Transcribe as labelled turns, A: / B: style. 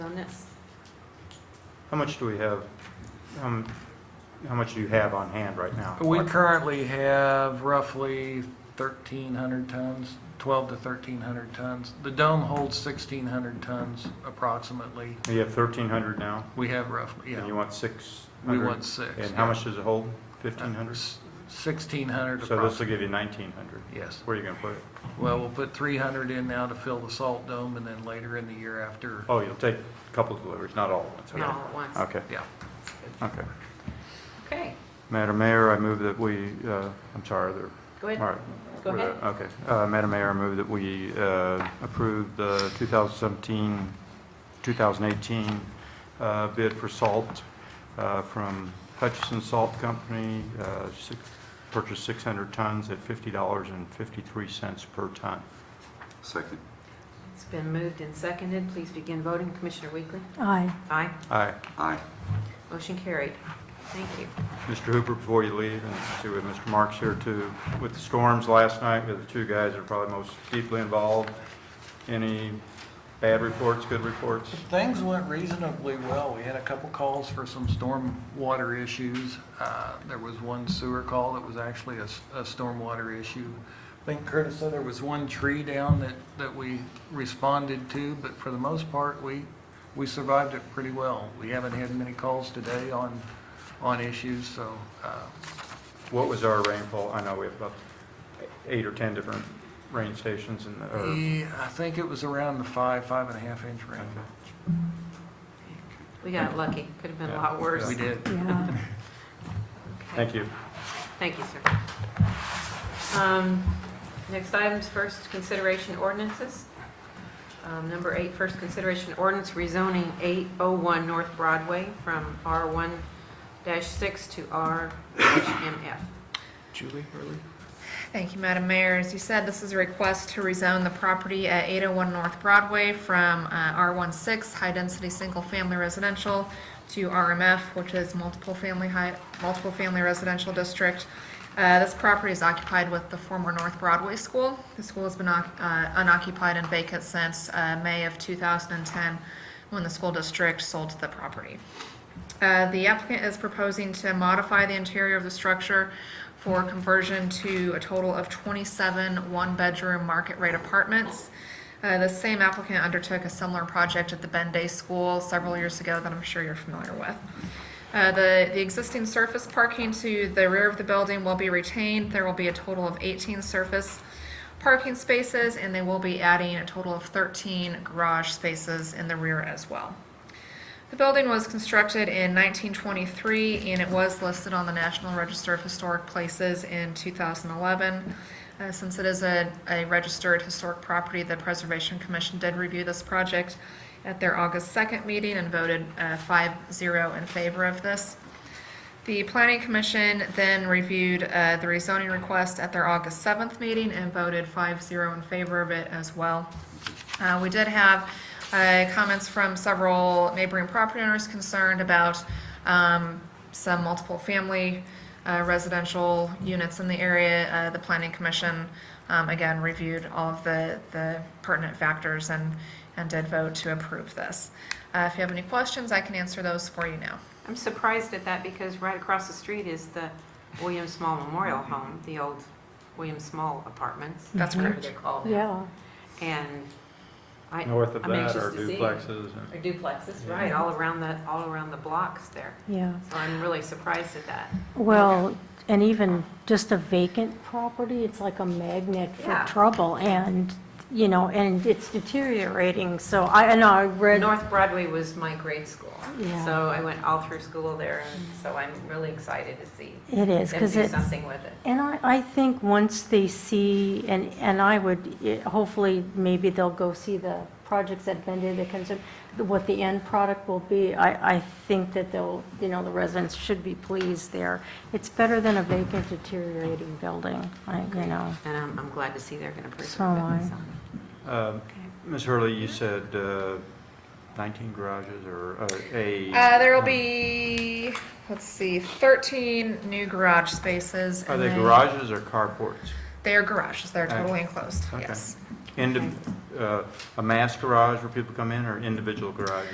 A: minutes.
B: How much do we have, um, how much do you have on hand right now?
C: We currently have roughly 1,300 tons, 12 to 1,300 tons. The dome holds 1,600 tons approximately.
B: You have 1,300 now?
C: We have roughly,
B: And
C: yeah.
B: you want 600?
C: We want six.
B: And how
C: yeah.
B: much does it hold?
C: Uh,
B: 1,500?
C: s- 1,600
B: So this will
C: approximately,
B: give you 1,900.
C: yes.
B: Where are you going to put it?
C: Well, we'll put 300 in now to fill the salt dome and then later in the year after,
B: Oh, you'll take a couple deliveries, not all at once. okay.
A: Not all at once.
B: Okay,
C: yeah.
B: okay.
A: Okay,
B: Madam Mayor, I move that we, uh, I'm sorry, there,
A: go
B: all
A: ahead.
B: right.
A: Go ahead.
B: Okay. Uh, Madam Mayor, I move that we uh, approve the 2017, 2018 uh, bid for salt uh, from Hutchison Salt Company, uh, six- purchase 600 tons at $50.53 per ton.
D: Second.
A: It's been moved and seconded. Please begin voting. Commissioner Weekly?
E: Aye.
A: Aye.
B: Aye.
D: Aye.
A: Motion carried. Thank you.
B: Mr. Hooper, before you leave, and I see we have Mr. Marks here too, with the storms last night, we have the two guys that are probably most deeply involved. Any bad reports, good reports?
C: Things went reasonably well. We had a couple calls for some storm water issues. Uh, There was one sewer call that was actually a, s- a stormwater issue. I think Curtis said there was one tree down that, that we responded to, but for the most part, we, we survived it pretty well. We haven't had many calls today on, on issues, so, uh,
B: What was our rainfall? I know we have about eight or 10 different rain stations in the, or-
C: yeah, I think it was around the five, five and a half inch range.
A: We got lucky. Could have been a
B: Yeah.
A: lot worse.
C: We did.
E: Yeah.
B: thank you.
A: Thank you, sir. Um, Next items, first consideration ordinances. Um, Number eight, first consideration ordinance rezoning 801 North Broadway from R1-6 to R-MF.
C: Julie, early?
F: Thank you, Madam Mayor. As you said, this is a request to rezone the property at 801 North Broadway from uh, R16 High Density Single Family Residential to RMF, which is Multiple Family High, Multiple Family Residential District. Uh, This property is occupied with the former North Broadway School. The school has been oc- uh, unoccupied and vacant since uh, May of 2010, when the school district sold the property. Uh, The applicant is proposing to modify the interior of the structure for conversion to a total of 27 one-bedroom market-rate apartments. Uh, The same applicant undertook a similar project at the Ben Day School several years ago that I'm sure you're familiar with. Uh, The the existing surface parking to the rear of the building will be retained. There will be a total of 18 surface parking spaces, and they will be adding a total of 13 garage spaces in the rear as well. The building was constructed in 1923 and it was listed on the National Register of Historic Places in 2011. Uh, since it is a, a registered historic property, the Preservation Commission did review this project at their August 2nd meeting and voted uh, 5 0 in favor of this. The Planning Commission then reviewed uh, the rezoning request at their August 7th meeting and voted 5 0 in favor of it as well. Uh, We did have uh, comments from several neighboring property owners concerned about um, some multiple-family uh, residential units in the area. Uh, The Planning Commission, um, again, reviewed all of the the pertinent factors and and did vote to approve this. Uh, If you have any questions, I can answer those for you now.
A: I'm surprised at that because right across the street is the William Small Memorial Home, the old William Small Apartments.
F: That's
A: whatever
F: correct.
A: they're called now.
E: Yeah.
A: And I,
B: North of
A: I'm
B: that
A: anxious
B: are
A: to see.
B: duplexes. and-
A: or duplexes, right, all around the, all around the blocks there.
E: Yeah.
A: So I'm really surprised at that.
E: Well, and even just a vacant property, it's like a magnet for
A: Yeah.
E: trouble and, you know, and it's deteriorating. So I, I know I read,
A: North Broadway was my grade school.
E: Yeah.
A: So I went all through school there, and so I'm really excited to see
E: it is,
A: them
E: because
A: do
E: it's,
A: something with it.
E: and I, I think once they see, and, and I would, eh, hopefully, maybe they'll go see the projects that Bendy, the concern, what the end product will be. I, I think that they'll, you know, the residents should be pleased there. It's better than a vacant deteriorating building, I, you know.
A: And I'm, I'm glad to see they're going to preserve it.
E: So am I.
A: so.
B: Uh, Ms. Hurley, you said uh, 19 garages or uh, a...
F: Uh, there will be, let's see, 13 new garage spaces.
B: Are
F: and
B: they
F: then-
B: garages or carports?
F: They are garages. They're totally
B: Okay.
F: enclosed,
B: Okay.
F: yes.
B: Indi- uh, A mass garage where people come in or individual garages?